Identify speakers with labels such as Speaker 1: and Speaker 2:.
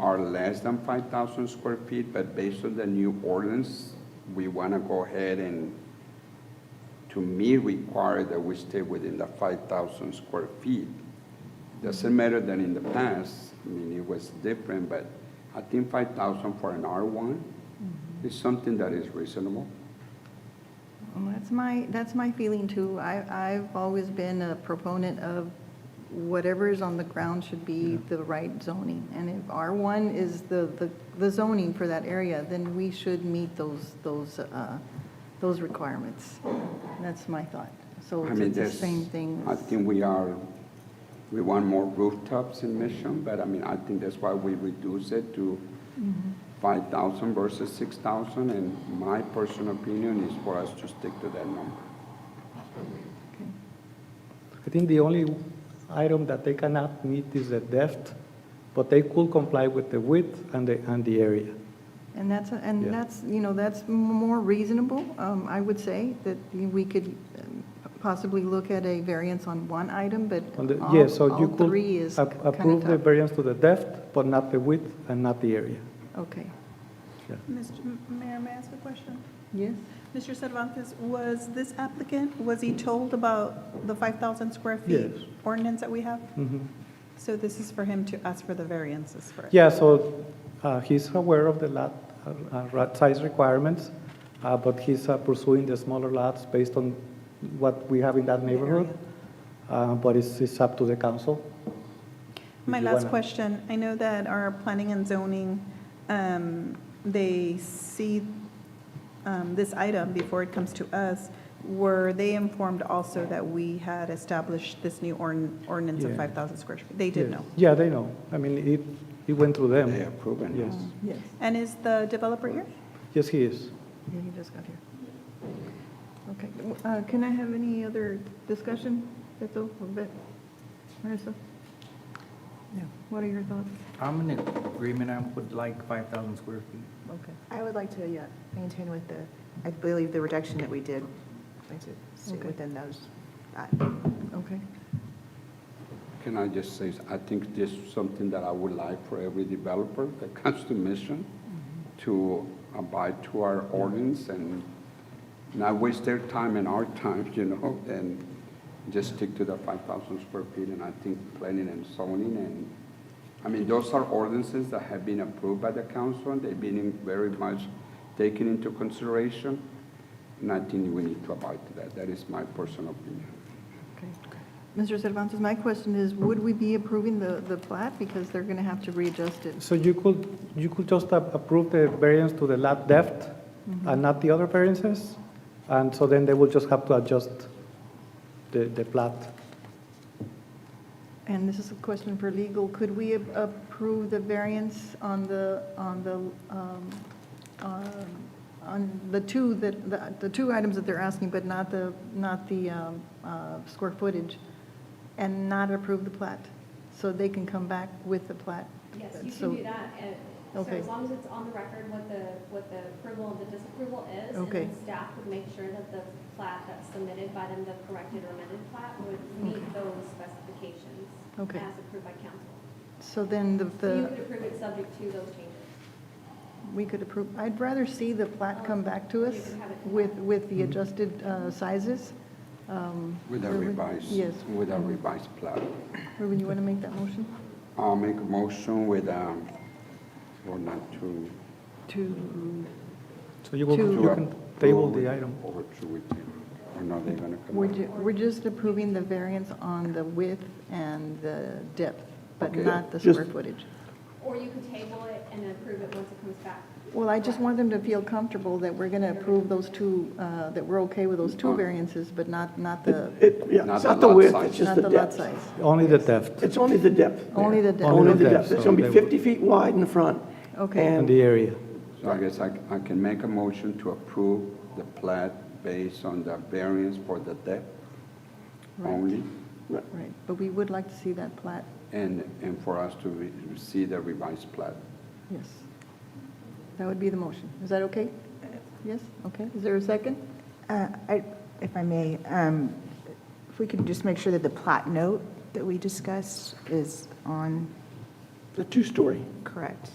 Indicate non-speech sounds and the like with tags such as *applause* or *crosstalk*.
Speaker 1: are less than 5,000 square feet, but based on the new ordinance, we want to go ahead and, to me, require that we stay within the 5,000 square feet. Doesn't matter that in the past, I mean, it was different, but I think 5,000 for an R1 is something that is reasonable.
Speaker 2: Well, That's my, that's my feeling too. I, I've always been a proponent of whatever is on the ground should be the right zoning. And if R1 is the, the- the zoning for that area, then we should meet those, those, uh, those requirements. That's my thought. So
Speaker 1: I
Speaker 2: it's
Speaker 1: mean,
Speaker 2: it's the
Speaker 1: there's-
Speaker 2: same thing.
Speaker 1: I
Speaker 2: as-
Speaker 1: think we are, we want more rooftops in Mission, but I mean, I think that's why we reduce it to
Speaker 2: Mm-hmm.
Speaker 1: five thousand versus six thousand, and my personal opinion is for us to stick to that number.
Speaker 2: okay.
Speaker 3: I think the only item that they cannot meet is the depth, but they could comply with the width and the, and the area.
Speaker 2: And that's, and
Speaker 3: Yeah.
Speaker 2: that's, you know, that's more reasonable, um, I would say, that we could um, possibly look at a variance on one item, but
Speaker 3: On the-
Speaker 2: all,
Speaker 3: yeah, so you
Speaker 2: all
Speaker 3: could
Speaker 2: three is
Speaker 3: ap-
Speaker 2: kind
Speaker 3: Approve the
Speaker 2: of tough.
Speaker 3: variance to the depth, but not the width and not the area.
Speaker 2: Okay.
Speaker 3: Yeah.
Speaker 4: Mr. M- Mayor, may I ask a question?
Speaker 2: Yes?
Speaker 4: Mr. Cervantes, was this applicant, was he told about the 5,000 square feet
Speaker 3: Yes.
Speaker 4: ordinance that we have?
Speaker 3: Mhm.
Speaker 4: So this is for him to ask for the variances for it?
Speaker 3: Yeah, so uh, he's aware of the lot, uh, uh, lot size requirements, uh, but he's uh, pursuing the smaller lots based on what we have in that neighborhood. Uh, But it's, it's up to the council.
Speaker 4: My
Speaker 3: If you
Speaker 4: last
Speaker 3: wanna-
Speaker 4: question, I know that our planning and zoning, um, they see um, this item before it comes to us. Were they informed also that we had established this new ordn- ordinance of
Speaker 3: Yeah.
Speaker 4: 5,000 square feet? They did
Speaker 3: Yes.
Speaker 4: know.
Speaker 3: Yeah, they know. I mean, it, it went through them.
Speaker 1: They approve it.
Speaker 3: Yes,
Speaker 2: Yes.
Speaker 4: And is the developer here?
Speaker 3: yes, he is.
Speaker 2: Yeah, he just got here. Okay, uh, can I have any other discussion, Beto, a bit? Marissa? No. What are your thoughts?
Speaker 5: I'm in agreement, I would like 5,000 square feet.
Speaker 2: Okay.
Speaker 6: I would like to, yeah, maintain with the, I believe the reduction that we did, I'd like to stay
Speaker 2: Okay.
Speaker 6: within those. uh,
Speaker 2: Okay.
Speaker 1: Can I just say, I think this is something that I would like for every developer that *laughs* comes to Mission to abide to our ordinance and not waste their time and our time, *laughs* you know, and just stick to the five thousand square feet, and I think planning and zoning and, I mean, those are ordinances that have been approved by the council, and they've been in- very much taken into consideration, and I think we need to abide to that. That is my personal opinion.
Speaker 2: Okay. Mr. Cervantes, my question is, would we be approving the, the plat? Because they're going to have to readjust it.
Speaker 3: So you could, you could just ap- approve the variance to the lot depth and not the other variances? And so then they will just have to adjust the, the plat.
Speaker 2: And this is a question for legal. Could we ap- approve the variance on the, on the, um, um, on the two that, the- the two items that they're asking, but not the, not the um, uh, square footage, and not approve the plat? So they can come back with the plat?
Speaker 7: Yes, you
Speaker 2: So-
Speaker 7: can do that, and so
Speaker 2: Okay.
Speaker 7: as long as it's on the record what the, what the approval and the disapproval is, and
Speaker 2: Okay.
Speaker 7: then staff would make sure that the plat that's submitted by them, the corrected or amended plat, would
Speaker 2: Okay.
Speaker 7: meet those specifications
Speaker 2: Okay.
Speaker 7: as approved by council.
Speaker 2: So then the,
Speaker 7: So you
Speaker 2: the
Speaker 7: could approve it subject to those changes.
Speaker 2: we could approve, I'd rather see the plat come back to us
Speaker 7: Oh, You can have it.
Speaker 2: with, with the adjusted uh, sizes. Um,
Speaker 1: Mm-hmm. With a
Speaker 2: Irwin-
Speaker 1: revised.
Speaker 2: Yes.
Speaker 1: With a revised plan.
Speaker 2: Ruben, you want to make that motion
Speaker 1: I'll make a motion with, um, or not to.
Speaker 2: to,
Speaker 3: So you will,
Speaker 2: To-
Speaker 3: you can table the item.
Speaker 1: Or to retain, or not, they're gonna come.
Speaker 2: we're,
Speaker 1: back.
Speaker 2: ju- we're just approving the variance on the width and the depth, but
Speaker 1: Okay.
Speaker 2: not the square footage.
Speaker 7: Or you could table it and approve it once it comes back.
Speaker 2: Well, I just want them to feel comfortable that we're going to approve those two, uh, that we're okay with those two variances, but not, not the,
Speaker 8: It, yeah,
Speaker 1: Not
Speaker 8: it's
Speaker 1: the
Speaker 8: not the
Speaker 1: lot
Speaker 8: width,
Speaker 1: size.
Speaker 8: it's just
Speaker 2: not
Speaker 8: the
Speaker 2: the lot
Speaker 8: depth.
Speaker 2: size.
Speaker 3: Only the depth
Speaker 8: It's only the depth.
Speaker 2: Only the depth.
Speaker 8: Only the depth.
Speaker 3: so
Speaker 8: It's gonna
Speaker 3: they
Speaker 8: be
Speaker 3: would-
Speaker 8: 50 feet wide in the front.
Speaker 2: Okay.
Speaker 3: and
Speaker 8: And
Speaker 3: the area.
Speaker 1: So I guess I, I can make a motion to approve the plat based on the variance for the depth
Speaker 2: Right.
Speaker 1: only,
Speaker 2: Right, but we would like to see that plat,
Speaker 1: and, and for us to re- see the revised plat.
Speaker 2: yes. That would be the motion. Is that okay? Yes, okay. Is there a second?
Speaker 6: uh, I- If I may, um, if we could just make sure that the plat note that we discussed is on,
Speaker 8: the two-story.
Speaker 6: correct.